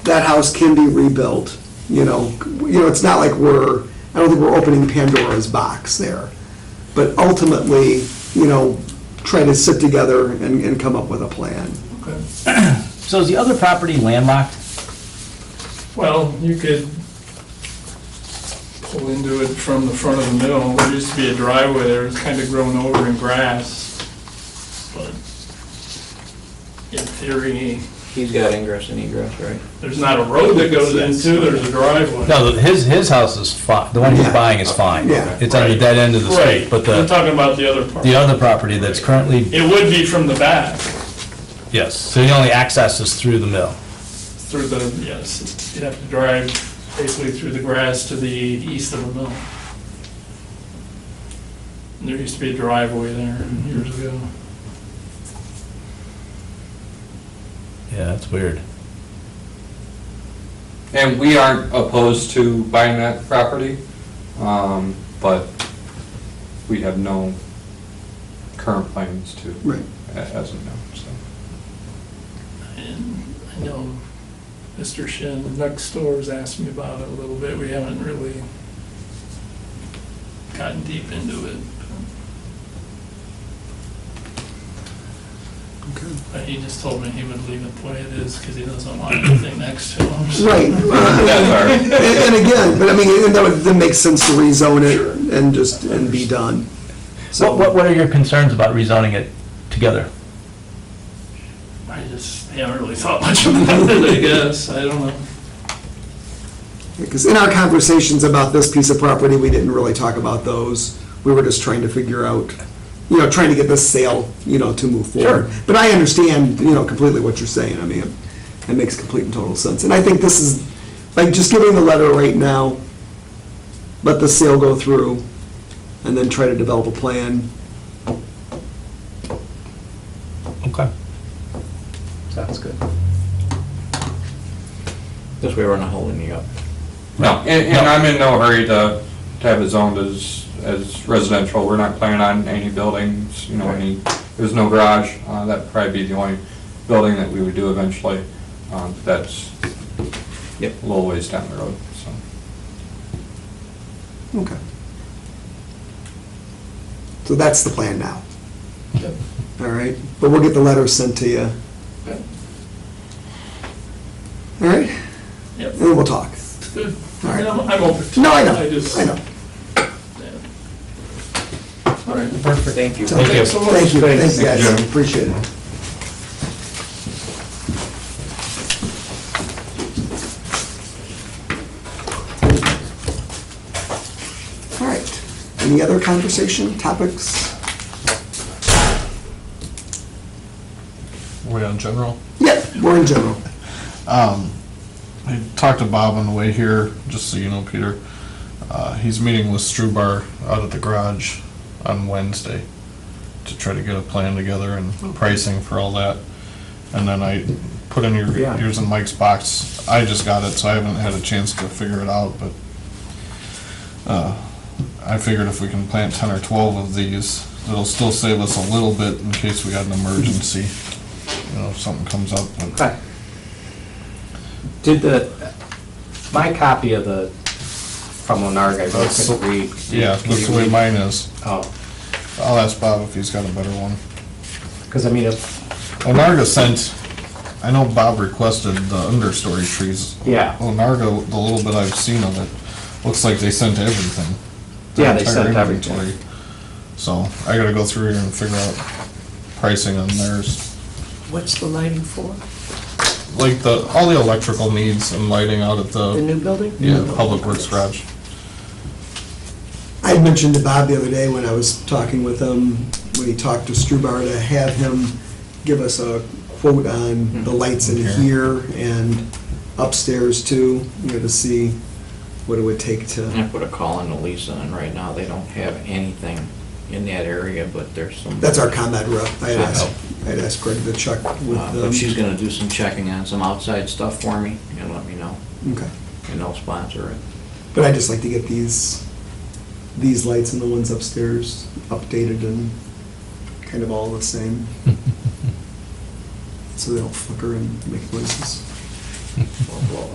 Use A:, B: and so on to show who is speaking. A: that house can be rebuilt, you know, you know, it's not like we're, I don't think we're opening Pandora's box there. But ultimately, you know, try to sit together and, and come up with a plan.
B: So is the other property landlocked?
C: Well, you could pull into it from the front of the mill. There used to be a driveway there, it's kind of grown over in grass. But in theory,
D: He's got ingress and egress, right?
C: there's not a road that goes into, there's a driveway.
E: No, his, his house is fine, the one he's
A: Yeah.
E: buying is fine.
A: Yeah.
E: It's on the
C: Right.
E: dead end of the
C: Right,
E: street, but
C: I'm
E: the,
C: talking about the other part.
E: the other property that's currently,
C: It would be from the back,
E: yes, so the only access is through the mill.
C: through the, yes, you'd have to drive basically through the grass to the east of the mill. And There used to be a driveway there years ago.
E: Yeah, that's weird.
D: And we aren't opposed to buying that property, um, but we have no current plans to,
A: Right.
D: a- as of now, so.
C: And I know Mr. Shin next door has asked me about it a little bit. We haven't really gotten deep into it. But he just told me he would leave it the way it is because he doesn't want anything next to him. so-
A: Right,
D: That's
A: and, and again, but I mean, and that would, that makes sense to rezone it and just, and be done. So
B: What, what, what are your concerns about rezoning it together?
C: I just haven't really thought much about it, I guess. I don't know.
A: Because in our conversations about this piece of property, we didn't really talk about those. We were just trying to figure out, you know, trying to get this sale, you know, to move forward. But I understand, you know, completely what you're saying. I mean, it- it makes complete and total sense. And I think this is, like, just giving the letter right now, let the sale go through, and then try to develop a plan.
E: Okay.
D: Sounds good.
B: This way we're not holding you up.
D: No, and, and I'm in no hurry to, to have it zoned as, as residential, we're not planning on any buildings, you know, any, there's no garage, uh, that'd probably be the only building that we would do eventually, um, that's a
B: Yep.
D: little ways down the road, so.
A: Okay. So that's the plan now.
C: Yep.
A: All right, but we'll get the letter sent to you.
C: Yep.
A: All right,
C: Yep.
A: and we'll talk.
C: Good.
A: All right.
C: I'm I'm open to it.
A: No, I know,
C: just-
A: I know.
C: All right.
B: Perfect. Thank you.
A: Thank
C: you.
A: Thank you, thank you
D: Thank
A: guys,
D: you.
A: appreciate it. All right, any other conversation, topics?
F: Way on general.
A: Yep, we're in general.
F: I talked to Bob on the way here, just so you know, Peter. Uh, he's meeting with Strubar out at the garage on Wednesday to try to get a plan together and pricing for all that. And then I put in your,
A: Yeah.
F: yours in Mike's box. I just got it, so I haven't had a chance to figure it out, but uh, I figured if we can plant ten or twelve of these, it'll still save us a little bit in case we got an emergency, you know, if something comes up. but-
B: Okay. Did the, my copy of the, from Onarga, I
F: That's-
B: couldn't read.
F: Yeah, that's the way mine is.
B: Oh,
F: I'll ask Bob if he's got a better one.
B: because I mean, if,
F: Onarga sent, I know Bob requested the understory trees.
B: yeah,
F: Onarga, the little bit I've seen of it, looks like they sent everything. their
B: Yeah, they
F: entire
B: sent everything.
F: inventory. So I gotta go through here and figure out pricing on theirs.
G: What's the lighting for?
F: Like the, all the electrical needs and lighting out at
G: The
F: the,
G: new building?
F: Oh. yeah, Public Works garage.
A: I had mentioned to Bob the other day when I was talking with him, when he talked to Strubar, to have him give us a quote
H: Hmm.
A: on the lights in
F: Okay.
A: here and upstairs too, you know, to see what it would take
H: I
A: to,
H: put a call into Lisa, and right now, they don't have anything in that area, but there's some.
A: that's our combat rep. I had asked, I had asked Greg to check with
H: Uh, But she's
A: them.
H: gonna do some checking on some outside stuff for me, and let me know,
A: Okay.
H: and they'll sponsor it.
A: But I'd just like to get these, these lights and the ones upstairs updated and kind of all the same. So they don't flicker and make noises. Or blow